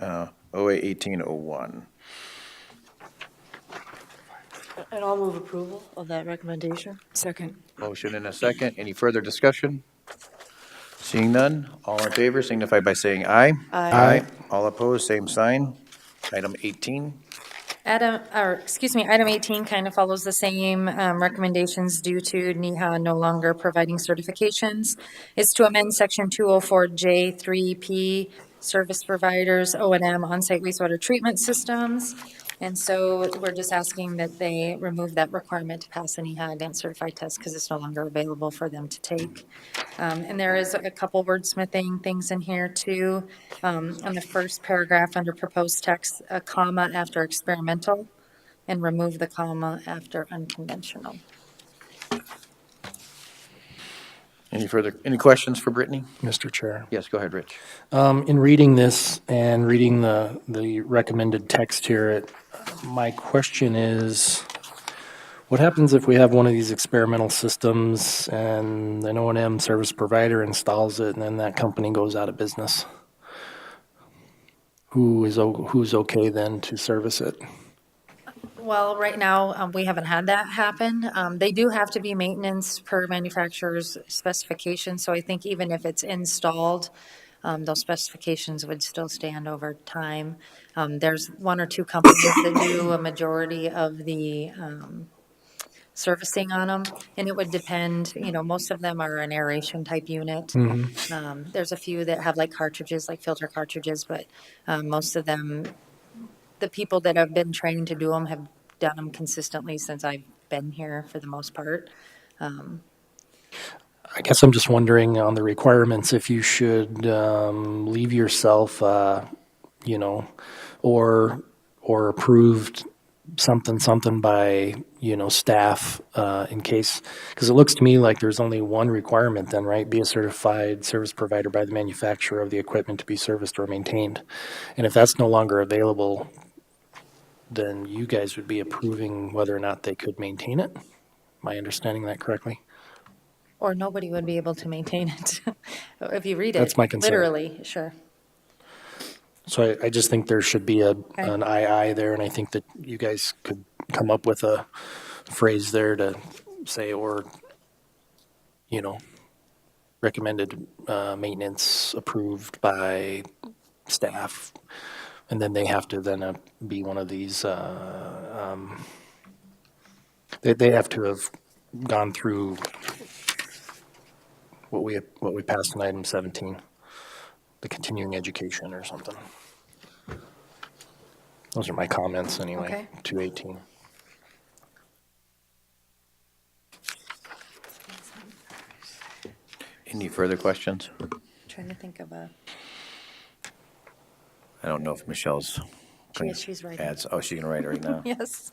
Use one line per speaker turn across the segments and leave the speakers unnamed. uh, OA 1801.
And I'll move approval of that recommendation.
Second.
Motion and a second. Any further discussion? Seeing none, all in favor signify by saying aye.
Aye.
All opposed, same sign. Item 18.
Adam, or, excuse me, item 18 kind of follows the same um, recommendations due to NEHA no longer providing certifications. It's to amend Section 204J3P, Service Providers, O and M Onsite Wastewater Treatment Systems. And so we're just asking that they remove that requirement to pass an E EHA Advanced Certified Test because it's no longer available for them to take. Um, And there is a couple wordsmithing things in here too. Um, On the first paragraph, under proposed text, a comma after experimental, and remove the comma after unconventional.
Any further, any questions for Brittany?
Mr. Chair.
Yes, go ahead, Rich.
Um, in reading this and reading the, the recommended text here, it, my question is, what happens if we have one of these experimental systems and an O and M service provider installs it and then that company goes out of business? Who is, o- who's okay then to service it?
Well, right now, um, we haven't had that happen. Um, They do have to be maintenance per manufacturer's specification, so I think even if it's installed, um, those specifications would still stand over time. Um, There's one or two companies that do a majority of the um, servicing on them, and it would depend, you know, most of them are an aeration type unit. Um, There's a few that have like cartridges, like filter cartridges, but um, most of them the people that have been trained to do them have done them consistently since I've been here for the most part.
I guess I'm just wondering on the requirements if you should um, leave yourself, uh, you know, or or approved something something by you know staff uh, in case because it looks to me like there's only one requirement then right be a certified service provider by the manufacturer of the equipment to be serviced or maintained and if that's no longer available then you guys would be approving whether or not they could maintain it am i understanding that correctly
Or nobody would be able to maintain it if you read it.
That's my concern.
Literally, sure.
So I, I just think there should be a, an II there, and I think that you guys could come up with a phrase there to say, or, you know, recommended, uh, maintenance approved by staff. And then they have to then uh, be one of these, uh, um, they, they have to have gone through what we, what we passed in item seventeen the continuing education or something. Those are my comments anyway,
Okay.
two eighteen.
Any further questions?
Trying to think of a,
I don't know if Michelle's.
She is, she's writing.
Adds- Oh, she's going to write it right now.
yes.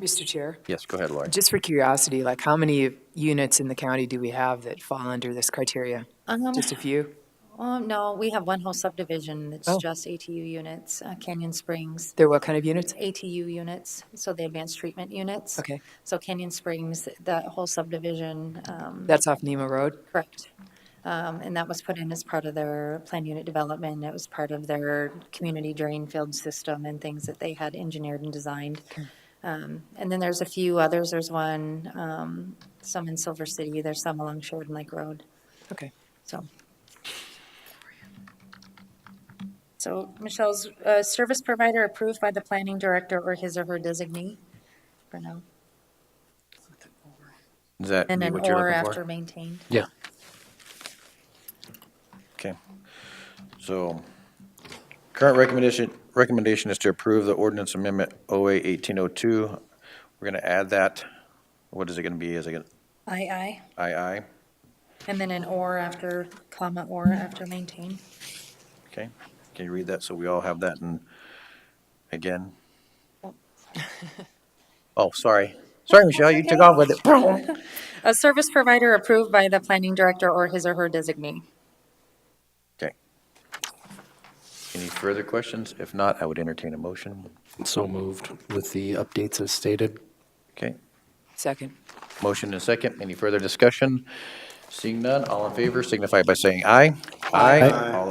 Mr. Chair,
Yes, go ahead, Lori.
just for curiosity, like, how many units in the county do we have that fall under this criteria?
Um,
Just a few?
Oh, no, we have one whole subdivision that's
Oh.
just ATU units, uh, Canyon Springs.
They're what kind of units?
um, ATU units, so the advanced treatment units.
Okay.
So Canyon Springs, that whole subdivision, um,
That's off Nemo Road?
Correct. Um, And that was put in as part of their plan unit development. It was part of their community drain field system and things that they had engineered and designed. Um, And then there's a few others. There's one, um, some in Silver City, there's some along Sheridan Lake Road,
Okay.
so. So Michelle's, uh, service provider approved by the planning director or his or her designee for now.
Is that
And
be
then
what you're
or
looking
after
for?
maintained.
Yeah.
Okay. So current recommendation, recommendation is to approve the ordinance amendment OA 1802. We're going to add that. What is it going to be? Is it going
Aye, aye.
to II?
And then an or after, comma, or after maintain.
Okay, can you read that so we all have that in, again? Oh, sorry. Sorry, Michelle, you took off with it.
A service provider approved by the planning director or his or her designee.
Okay. Any further questions? If not, I would entertain a motion.
So moved with the updates as stated.
Okay,
Second.
motion and second. Any further discussion? Seeing none, all in favor signify by saying aye. Aye. All